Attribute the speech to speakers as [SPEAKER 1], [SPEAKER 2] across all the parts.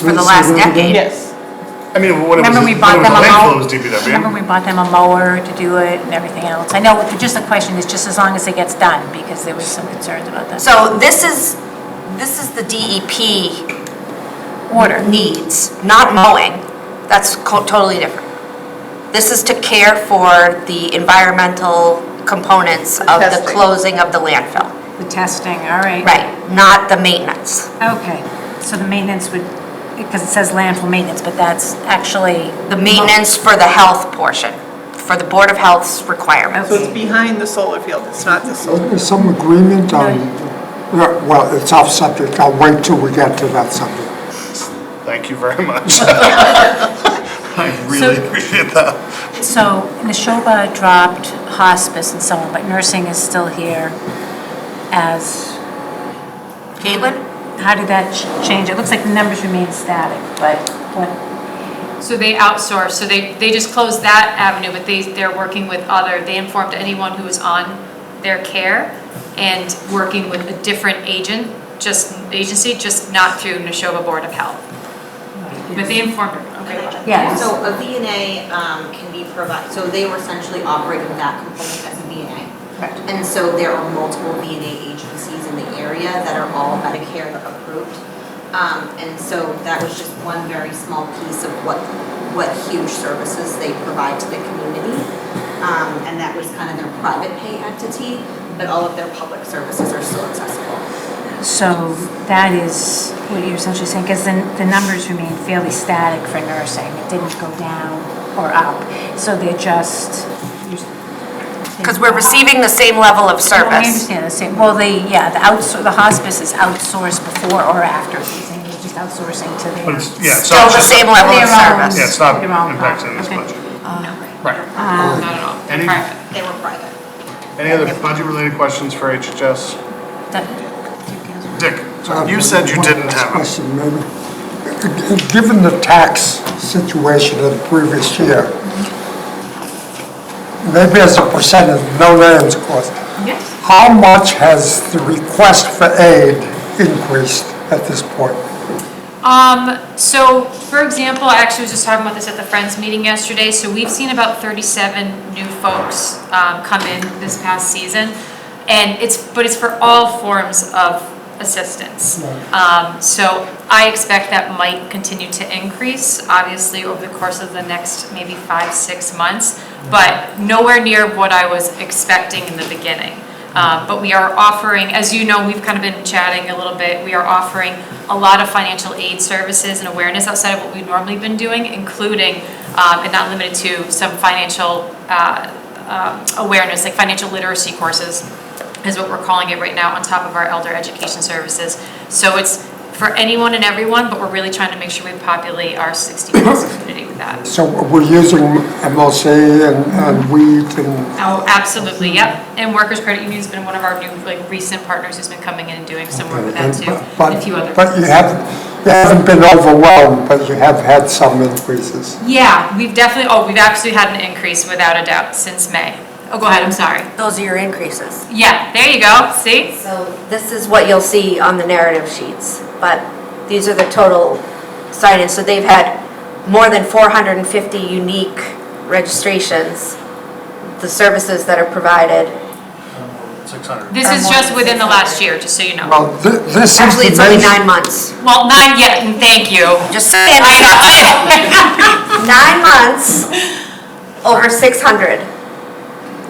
[SPEAKER 1] for the last decade.
[SPEAKER 2] Yes.
[SPEAKER 3] I mean, when it was,
[SPEAKER 1] Remember
[SPEAKER 3] when
[SPEAKER 1] we
[SPEAKER 3] it
[SPEAKER 1] bought
[SPEAKER 3] was
[SPEAKER 1] them
[SPEAKER 3] a
[SPEAKER 1] a mower?
[SPEAKER 3] landfill, it was DPW.
[SPEAKER 1] Remember we bought them a mower to do it and everything else? I know, just the question is, just as long as it gets done, because there was some concerns about that.
[SPEAKER 4] So this is, this is the DEP
[SPEAKER 1] Order.
[SPEAKER 4] needs, not mowing. That's co- totally different. This is to care for the environmental components of the
[SPEAKER 2] Testing.
[SPEAKER 4] closing of the landfill.
[SPEAKER 1] The testing, all right.
[SPEAKER 4] Right, not the maintenance.
[SPEAKER 1] Okay, so the maintenance would, because it says landfill maintenance, but that's actually.
[SPEAKER 4] The maintenance for the health portion, for the Board of Health's requirements.
[SPEAKER 2] So it's behind the solar field, it's not the solar.
[SPEAKER 5] Wasn't there some agreement on, well, it's off subject, I'll wait till we get to that subject.
[SPEAKER 3] Thank you very much. I really
[SPEAKER 1] So-
[SPEAKER 3] appreciate that.
[SPEAKER 1] So Neshoba dropped hospice and so on, but nursing is still here as,
[SPEAKER 4] Caitlin?
[SPEAKER 1] how did that ch- change? It looks like the numbers remain static, but what?
[SPEAKER 6] So they outsource, so they, they just closed that avenue, but they, they're working with other, they informed anyone who was on their care and working with a different agent, just, agency, just not through Neshoba Board of Health. But they informed her, okay. about it.
[SPEAKER 1] Yes.
[SPEAKER 7] So a VNA um, can be provided, so they were essentially operating that component as a VNA. Correct. And so there are multiple VNA agencies in the area that are all Medicare approved. Um, And so that was just one very small piece of what, what huge services they provide to the community. Um, And that was kind of their private pay entity, but all of their public services are still accessible.
[SPEAKER 1] So that is what you're essentially saying, because then the numbers remain fairly static for nursing. It didn't go down or up. So they're just.
[SPEAKER 4] Because we're receiving the same level of
[SPEAKER 1] No, I
[SPEAKER 4] service.
[SPEAKER 1] understand the same. Well, they, yeah, the outsource, the hospice is outsourced before or after. These things are just outsourcing to
[SPEAKER 3] But
[SPEAKER 1] their.
[SPEAKER 3] it's, yeah, so
[SPEAKER 4] Still
[SPEAKER 3] it's
[SPEAKER 4] the
[SPEAKER 3] just,
[SPEAKER 4] same
[SPEAKER 3] yeah,
[SPEAKER 4] level of
[SPEAKER 1] Their own-
[SPEAKER 4] service.
[SPEAKER 3] it's not
[SPEAKER 1] Their own
[SPEAKER 3] impacting this
[SPEAKER 1] problem,
[SPEAKER 3] budget.
[SPEAKER 6] No,
[SPEAKER 3] Right.
[SPEAKER 1] Uh,
[SPEAKER 6] not at all, They're
[SPEAKER 3] Any-
[SPEAKER 6] private.
[SPEAKER 7] They were private.
[SPEAKER 3] Any other budget-related questions for HHS?
[SPEAKER 1] That-
[SPEAKER 3] Dick, you said you
[SPEAKER 5] One
[SPEAKER 3] didn't
[SPEAKER 5] last
[SPEAKER 3] have it.
[SPEAKER 5] Question, maybe. Given the tax situation of the previous year, maybe as a percent of no lands cost,
[SPEAKER 6] Yes.
[SPEAKER 5] how much has the request for aid increased at this point?
[SPEAKER 6] Um, so, for example, I actually was just talking about this at the Friends meeting yesterday, so we've seen about thirty-seven new folks, um, come in this past season. And it's, but it's for all forms of assistance. Um, so I expect that might continue to increase, obviously, over the course of the next maybe five, six months, but nowhere near what I was expecting in the beginning. Uh, But we are offering, as you know, we've kind of been chatting a little bit, we are offering a lot of financial aid services and awareness outside of what we've normally been doing, including, um, and not limited to, some financial uh, um, awareness, like financial literacy courses is what we're calling it right now, on top of our elder education services. So it's for anyone and everyone, but we're really trying to make sure we populate our 60-plus community with that.
[SPEAKER 5] So we're using MLC and and wheat and
[SPEAKER 6] Oh, absolutely, yep. And Workers Credit Union's been one of our new, like, recent partners who's been coming in and doing some work with that too,
[SPEAKER 5] But-
[SPEAKER 6] and a few others.
[SPEAKER 5] But you haven't, you haven't been overwhelmed, but you have had some increases.
[SPEAKER 6] Yeah, we've definitely, oh, we've actually had an increase without a doubt since May. Oh, go ahead, I'm sorry.
[SPEAKER 4] Those are your increases.
[SPEAKER 6] Yeah, there you go, see?
[SPEAKER 4] So this is what you'll see on the narrative sheets, but these are the total sign-ins. So they've had more than 450 unique registrations, the services that are provided.
[SPEAKER 3] 600.
[SPEAKER 6] This is just within the last year, just so you know.
[SPEAKER 5] Well, thi- this is the
[SPEAKER 4] Actually, it's only
[SPEAKER 5] major-
[SPEAKER 4] nine months.
[SPEAKER 6] Well, not yet, and thank you.
[SPEAKER 4] Just saying, nine months, over 600.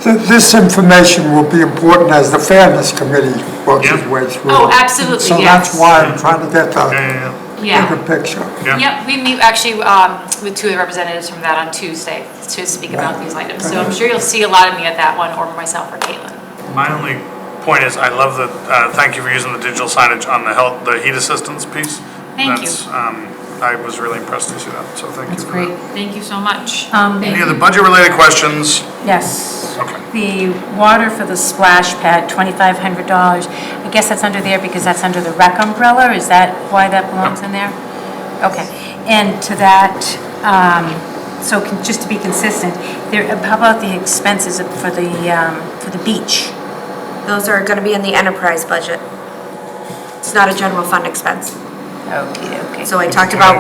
[SPEAKER 5] thi- This information will be important as the Fairness Committee works its
[SPEAKER 3] Yeah.
[SPEAKER 5] way through.
[SPEAKER 6] Oh,
[SPEAKER 5] it.
[SPEAKER 6] absolutely,
[SPEAKER 5] So that's
[SPEAKER 6] yes.
[SPEAKER 5] why I'm trying to get
[SPEAKER 3] Yeah,
[SPEAKER 5] the
[SPEAKER 3] yeah,
[SPEAKER 6] Yeah.
[SPEAKER 5] bigger picture.
[SPEAKER 3] yeah. Yeah.
[SPEAKER 6] Yep, we meet actually um, with two of the representatives from that on Tuesday to speak about these items. So I'm sure you'll see a lot of me at that one, or myself or Caitlin.
[SPEAKER 8] My only point is, I love the, uh, thank you for using the digital signage on the health, the heat assistance piece.
[SPEAKER 6] Thank you.
[SPEAKER 8] That's, um, I was really impressed to see that, so thank you for that.
[SPEAKER 6] Thank you so much.
[SPEAKER 1] Um,
[SPEAKER 8] Any other budget-related questions?
[SPEAKER 1] Yes.
[SPEAKER 8] Okay.
[SPEAKER 1] The water for the splash pad, $2,500. I guess that's under there because that's under the rec umbrella? Is that why that belongs in there? Okay. And to that, um, so can- just to be consistent, there, how about the expenses for the, um, for the beach?
[SPEAKER 4] Those are going to be in the enterprise budget. It's not a general fund expense.
[SPEAKER 1] Okay, okay.
[SPEAKER 4] So I talked about